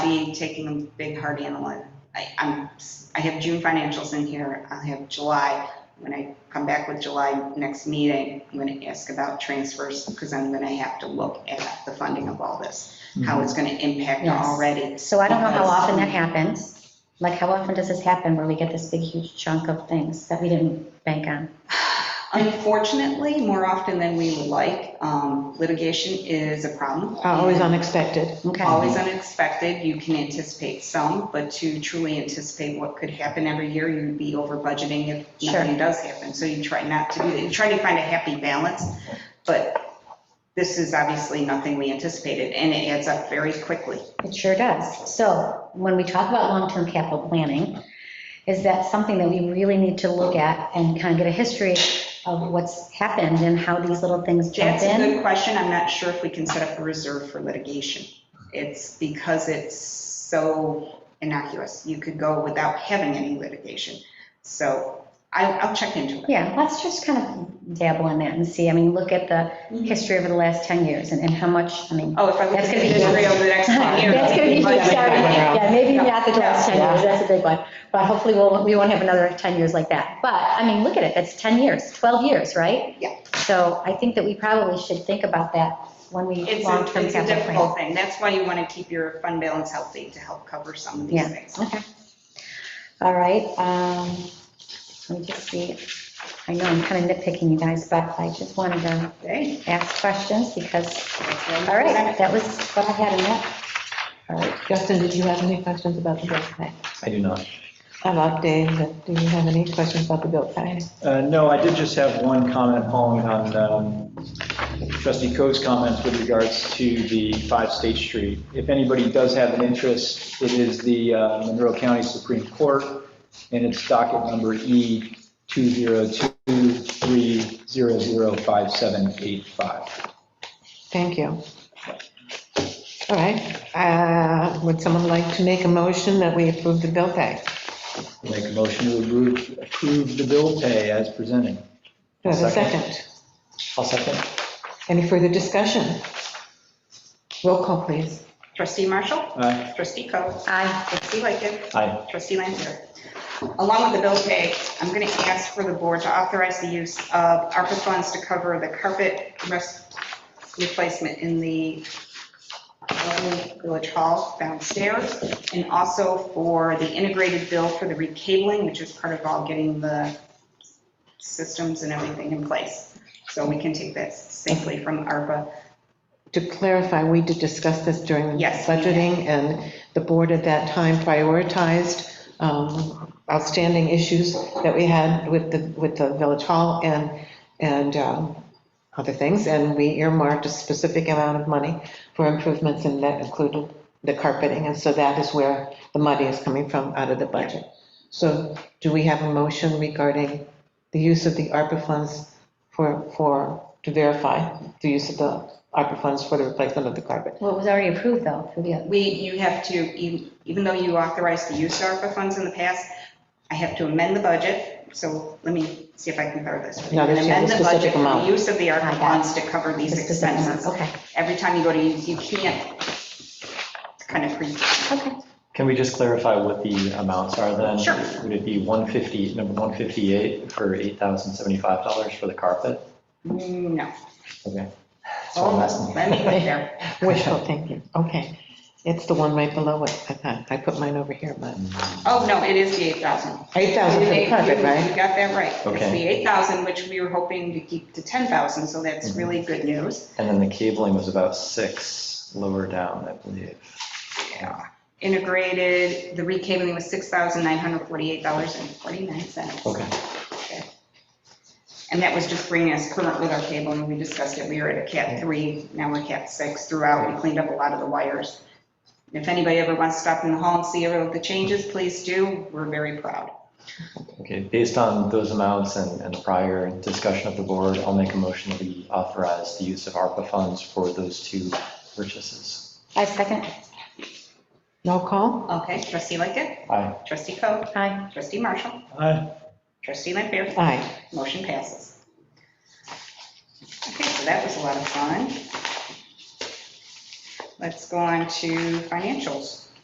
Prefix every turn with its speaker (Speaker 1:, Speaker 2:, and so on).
Speaker 1: be taking a big hard analyze. I, I'm, I have June financials in here, I'll have July. When I come back with July next meeting, I'm gonna ask about transfers, because I'm gonna have to look at the funding of all this,
Speaker 2: Mm-hmm.
Speaker 1: how it's gonna impact
Speaker 3: Yes.
Speaker 1: already.
Speaker 3: So I don't know how often that happens. Like, how often does this happen where we get this big huge chunk of things that we didn't bank on?
Speaker 1: Unfortunately, more often than we would like, um, litigation is a problem.
Speaker 4: Uh, Always unexpected.
Speaker 3: Okay.
Speaker 1: Always unexpected, you can anticipate some, but to truly anticipate what could happen every year, you'd be over budgeting if nothing
Speaker 3: Sure.
Speaker 1: does happen. So you try not to do that, you try to find a happy balance, but this is obviously nothing we anticipated, and it adds up very quickly.
Speaker 3: It sure does. So when we talk about long-term capital planning, is that something that we really need to look at and kind of get a history of what's happened and how these little things jump
Speaker 1: That's a
Speaker 3: in?
Speaker 1: good question, I'm not sure if we can set up a reserve for litigation. It's because it's so innocuous, you could go without having any litigation. So I, I'll check into it.
Speaker 3: Yeah, let's just kind of dabble in that and see. I mean, look at the history over the last 10 years and and how much, I mean,
Speaker 1: Oh, if I look at
Speaker 3: That's
Speaker 1: the
Speaker 3: gonna be
Speaker 1: history
Speaker 3: huge.
Speaker 1: over the next ten years.
Speaker 3: That's gonna be huge,
Speaker 1: budget-
Speaker 3: sorry. Yeah, maybe not the last 10
Speaker 4: Yeah.
Speaker 3: years, that's a big one. But hopefully, we'll, we won't have another 10 years like that. But, I mean, look at it, that's 10 years, 12 years, right?
Speaker 1: Yeah.
Speaker 3: So I think that we probably should think about that when we
Speaker 1: It's a,
Speaker 3: long-term
Speaker 1: it's a
Speaker 3: capital plan.
Speaker 1: difficult thing. That's why you want to keep your fund balance healthy to help cover some of these
Speaker 3: Yeah.
Speaker 1: things.
Speaker 3: Okay. All right, um, let me just see. I know I'm kind of nitpicking you guys, but I just wanted to
Speaker 1: Okay.
Speaker 3: ask questions because,
Speaker 1: that's what I'm
Speaker 3: all right,
Speaker 1: presenting.
Speaker 3: that was what I had in that. All right,
Speaker 4: Justin, did you have any questions about the bill pay?
Speaker 2: I do not.
Speaker 4: I'm up, Dave, but do you have any questions about the bill pay?
Speaker 2: Uh, No, I did just have one comment following on um, trustee Coe's comments with regards to the 5 State Street. If anybody does have an interest, it is the uh, Monroe County Supreme Court, and it's docket number E 202300578.
Speaker 4: Thank you. All right, uh, would someone like to make a motion that we approve the bill pay?
Speaker 2: Make a motion to approve, approve the bill pay as presented.
Speaker 4: Do I have a
Speaker 2: Second.
Speaker 4: second?
Speaker 2: I'll second.
Speaker 4: Any further discussion? Roll call, please.
Speaker 1: Trustee Marshall,
Speaker 2: Aye.
Speaker 1: trustee Coe,
Speaker 3: aye,
Speaker 1: trustee Lightgev,
Speaker 2: Aye.
Speaker 1: trustee Lanfair. Along with the bill pay, I'm going to ask for the board to authorize the use of ARPA funds to cover the carpet rest replacement in the Lovely Village Hall downstairs, and also for the integrated bill for the recabling, which is part of all getting the systems and everything in place. So we can take that safely from ARPA.
Speaker 4: To clarify, we did discuss this during
Speaker 1: Yes.
Speaker 4: budgeting, and the board at that time prioritized um, outstanding issues that we had with the, with the village hall and, and um, other things, and we earmarked a specific amount of money for improvements, and that included the carpeting, and so that is where the money is coming from, out of the budget. So do we have a motion regarding the use of the ARPA funds for, for, to verify the use of the ARPA funds for the replacement of the carpet?
Speaker 3: well, it was already approved though, for the,
Speaker 1: We, you have to, you- even though you authorized the use of ARPA funds in the past, I have to amend the budget, so let me see if I can cover this.
Speaker 4: No, there's no
Speaker 1: Amend the budget
Speaker 4: specific
Speaker 1: for the
Speaker 4: amount.
Speaker 1: Use of the
Speaker 3: I
Speaker 1: ARPA
Speaker 3: got
Speaker 1: funds to cover
Speaker 3: the
Speaker 1: these
Speaker 3: specific amount,
Speaker 1: expenses.
Speaker 3: okay,
Speaker 1: Every time you go to use, you can't kind of pre.
Speaker 3: okay.
Speaker 5: Can we just clarify what the amounts are then?
Speaker 1: Sure.
Speaker 5: Would it be 150, number 158 for $8,075 for the carpet?
Speaker 1: No.
Speaker 5: Okay. That's what I'm
Speaker 1: Oh,
Speaker 5: asking.
Speaker 1: Let me look there.
Speaker 4: Wishful thinking, okay. It's the one right below it, I thought, I put mine over here, but
Speaker 1: Oh, no, it is the 8,000.
Speaker 4: 8,000 for the carpet,
Speaker 1: You-
Speaker 4: right?
Speaker 1: You got that right. It's
Speaker 5: Okay.
Speaker 1: the 8,000, which we were hoping to keep to 10,000, so
Speaker 5: Mm-hmm.
Speaker 1: that's really good news.
Speaker 5: And then the cabling was about six lower down, I believe.
Speaker 1: Yeah. Integrated, the recabling was $6,948.49.
Speaker 5: Okay.
Speaker 1: And that was just bringing us current with our cabling. We discussed it, we were at a cat three, now we're cat six throughout. We cleaned up a lot of the wires. If anybody ever wants to stop in the hall and see ever the changes, please do. We're very proud.
Speaker 5: Okay, based on those amounts and and the prior discussion of the board, I'll make a motion that we authorize the use of ARPA funds for those two purchases.
Speaker 3: I second,
Speaker 4: No call?
Speaker 1: Okay, trustee Lightkit,
Speaker 5: Aye.
Speaker 1: trustee Coe,
Speaker 3: aye,
Speaker 1: trustee Marshall,
Speaker 2: Aye.
Speaker 1: trustee Lampier,
Speaker 4: Aye.
Speaker 1: motion passes. Okay, so that was a lot of fun. Let's go on to financials.